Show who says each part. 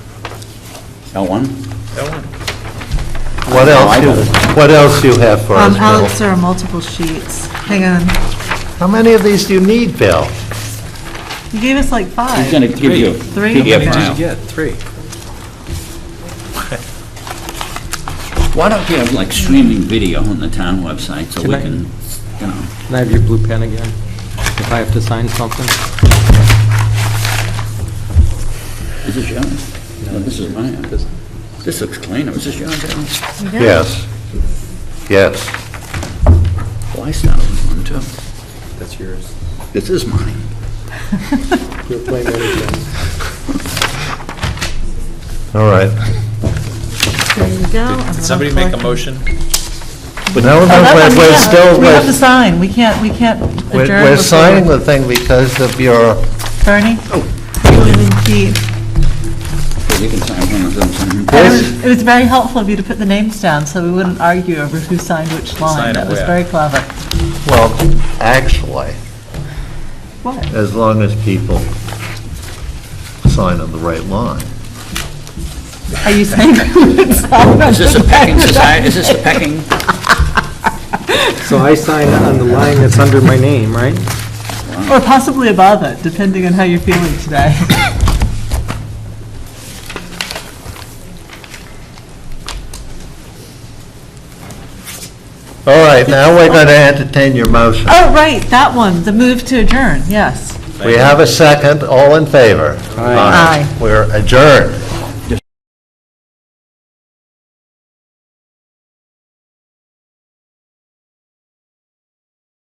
Speaker 1: L1?
Speaker 2: What
Speaker 1: No,
Speaker 2: else
Speaker 1: I
Speaker 2: you,
Speaker 1: got it.
Speaker 2: what else you have for
Speaker 3: Um,
Speaker 2: us,
Speaker 3: Alex,
Speaker 2: Bill?
Speaker 3: there are multiple sheets. Hang on.
Speaker 2: How many of these do you need, Bill?
Speaker 3: You gave us like
Speaker 1: He's
Speaker 3: five.
Speaker 1: going to give you.
Speaker 3: Three?
Speaker 1: give you a
Speaker 3: Okay.
Speaker 1: file.
Speaker 4: Yeah, three.
Speaker 1: Why don't you have like streaming video on the town website so we
Speaker 4: Can I-
Speaker 1: can, you know,
Speaker 4: Can I have your blue pen again? If I have to sign something?
Speaker 1: is this yours? No, this is mine. This looks clean. Is this yours, Alan?
Speaker 2: Yes. Yes.
Speaker 1: Well, Oh, I started with one too.
Speaker 5: That's yours.
Speaker 1: This is mine.
Speaker 5: You're playing everything.
Speaker 2: All right.
Speaker 3: There you go. I'm gonna
Speaker 6: Did somebody make a
Speaker 3: collect-
Speaker 6: motion?
Speaker 2: But no, no,
Speaker 3: Oh,
Speaker 2: we're,
Speaker 3: yeah,
Speaker 2: we're still,
Speaker 3: We have to
Speaker 2: we're,
Speaker 3: sign. We can't, we can't
Speaker 2: we're-
Speaker 3: adjourn.
Speaker 2: we're
Speaker 3: before-
Speaker 2: signing the thing because of your,
Speaker 3: Bernie? You didn't keep-
Speaker 1: Well, you can sign one of them.
Speaker 3: And It
Speaker 2: Yes.
Speaker 3: was- it was very helpful of you to put the names down, so we wouldn't argue over who signed which line.
Speaker 6: Sign
Speaker 3: That
Speaker 6: it
Speaker 3: was
Speaker 6: where?
Speaker 3: very clever.
Speaker 2: well, actually,
Speaker 3: What?
Speaker 2: as long as people sign on the right line.
Speaker 3: Are you saying who would sign?
Speaker 1: Is this a pecking society? Is this a pecking?
Speaker 5: So I sign on the line that's under my name, right?
Speaker 3: Or possibly above it, depending on how you're feeling today.
Speaker 2: All right, now we're going to entertain your motion.
Speaker 3: Oh, right, that one, the move to adjourn, yes.
Speaker 2: We have a second, all in favor?
Speaker 5: Aye.
Speaker 2: We're adjourned.